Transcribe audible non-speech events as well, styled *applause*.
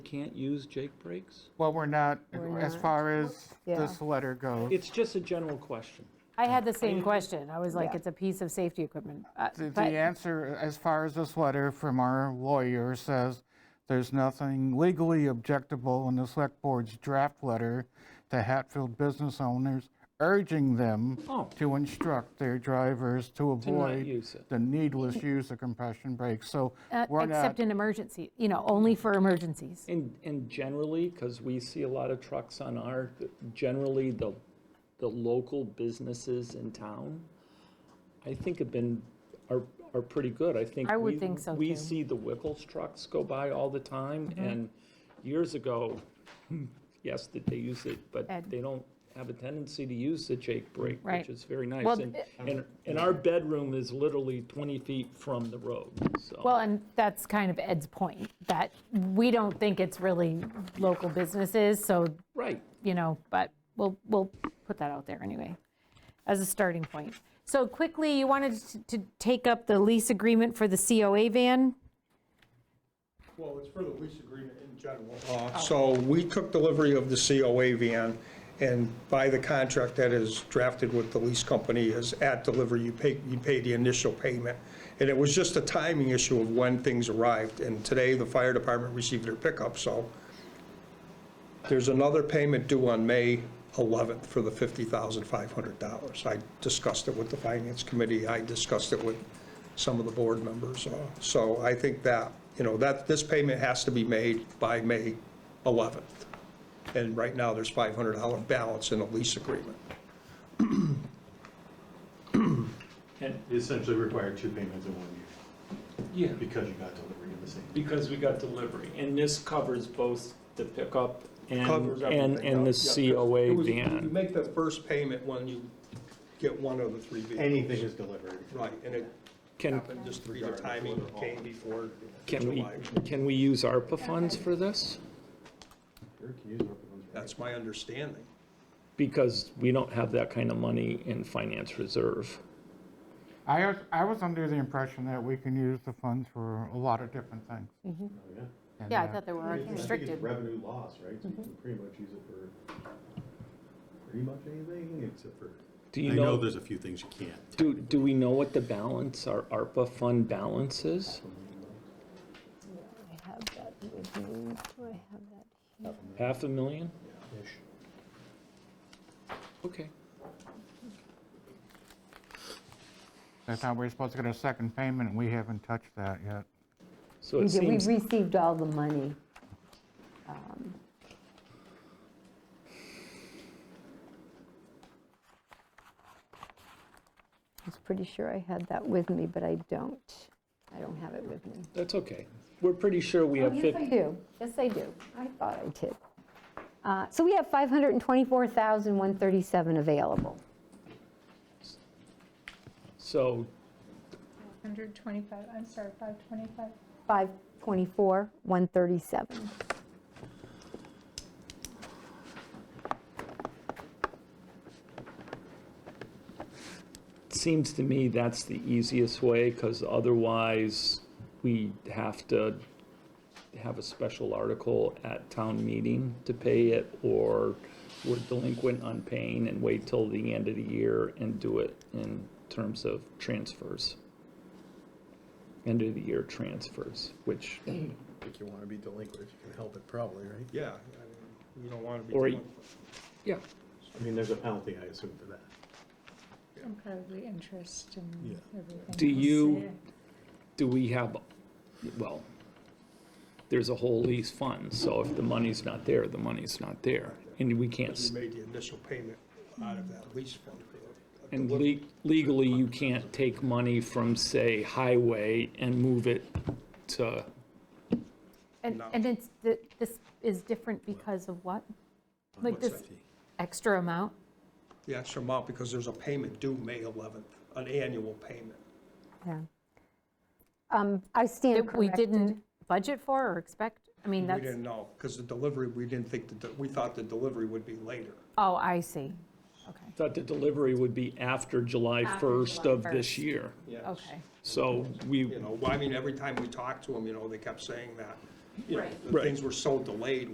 can't use Jake breaks? Well, we're not, We're as not. far as Yeah. this letter goes. It's just a general question. I had the same question. I was like, Yeah. it's a piece of safety equipment. Uh, The, the but- answer, as far as this letter from our lawyer says, there's nothing legally objectable in the select board's draft letter to Hatfield business owners urging them Oh. to instruct their drivers to To not avoid use it. the needless use of compression brakes. So Uh, we're not, Except in emergency, you know, only for emergencies. And, and generally, because we see a lot of trucks on our, generally, the, the local businesses in town, I think have been, are, are pretty good. I think. I would we- think so, We too. Mm-hmm. see the Wickles trucks go by all the time, and years ago, *laughs* yes, that they use it, but Ed. they don't have a tendency to use the Jake brake, Right. which is very nice. Well, And, and, and our bedroom is literally 20 feet from the road, so. Well, and that's kind of Ed's point, that we don't think it's really local businesses, so, Right. you know, but we'll, we'll put that out there anyway, as a starting point. So quickly, you wanted to- to take up the lease agreement for the COA van? Well, it's for the lease agreement in general. Uh, So we took delivery of the COA van, and by the contract that is drafted with the lease company is at delivery, you pay, you pay the initial payment. And it was just a timing issue of when things arrived, and today the fire department received their pickup, so there's another payment due on May 11th for the $50,500. I discussed it with the Finance Committee, I discussed it with some of the board members. Uh, So I think that, you know, that, this payment has to be made by May 11th. And right now, there's $500 balance in the lease agreement. And essentially required two payments in one year Yeah. because you got delivery in the same. Because we got delivery, and this covers both the pickup and, Covers and, everything and the up. Yeah. It COA was- You van. make the first payment when you get one of the three vehicles. Anything is delivered. Right, and it Can, happened just through the timing came before can we, July. can we use ARPA funds for this? That's my understanding. Because we don't have that kind of money in finance reserve. I, was- I was under the impression that we can use the funds for a lot of different things. And, Yeah, I uh, thought they were restricted. Revenue loss, right? So you can pretty much use it for pretty much anything except for. Do you I know know, there's a few things you can't. do, do we know what the balance, our ARPA fund balance is? I have that with me. Do I have that? Half a million? Okay. That's how we're supposed to get a second payment, and we haven't touched that yet. So We it did- we seems, received all the money. Um, I was pretty sure I had that with me, but I don't. I don't have it with me. that's okay. We're pretty sure we have Oh, Yes, I 50, do. Yes, I do. I thought I did. Uh, So we have 524,137 available. so 125, I'm sorry, 525. 524, 137. seems to me that's the easiest way, because otherwise, we have to have a special article at town meeting to pay it, or we're delinquent on paying and wait till the end of the year and do it in terms of transfers. End of the year transfers, which, Think you want to be delinquent if you can help it, probably, right? Yeah, I mean, you don't want to be. Or- doing- yeah, I mean, there's a penalty, I assume, for that. And probably interest Yeah. and everything. Do else. you- do we have, well, there's a whole lease fund, so if the money's not there, the money's not there, and we can't. You made the initial payment out of that lease fund. for the- And le- legally, you can't take money from, say, highway and move it to, And, No. and it's, th- this is different because of what? Like this extra amount? The extra amount, because there's a payment due May 11th, an annual payment. Yeah. Um, I stand that we corrected. didn't budget for or expect? I mean, We that's, didn't know, because the delivery, we didn't think, the de- we thought the delivery would be later. oh, I see. Okay, thought the delivery would be after July 1st of this year. Yes. okay. So we, You know, well, I mean, every time we talked to them, you know, they kept saying that, you know, Right. the things were so delayed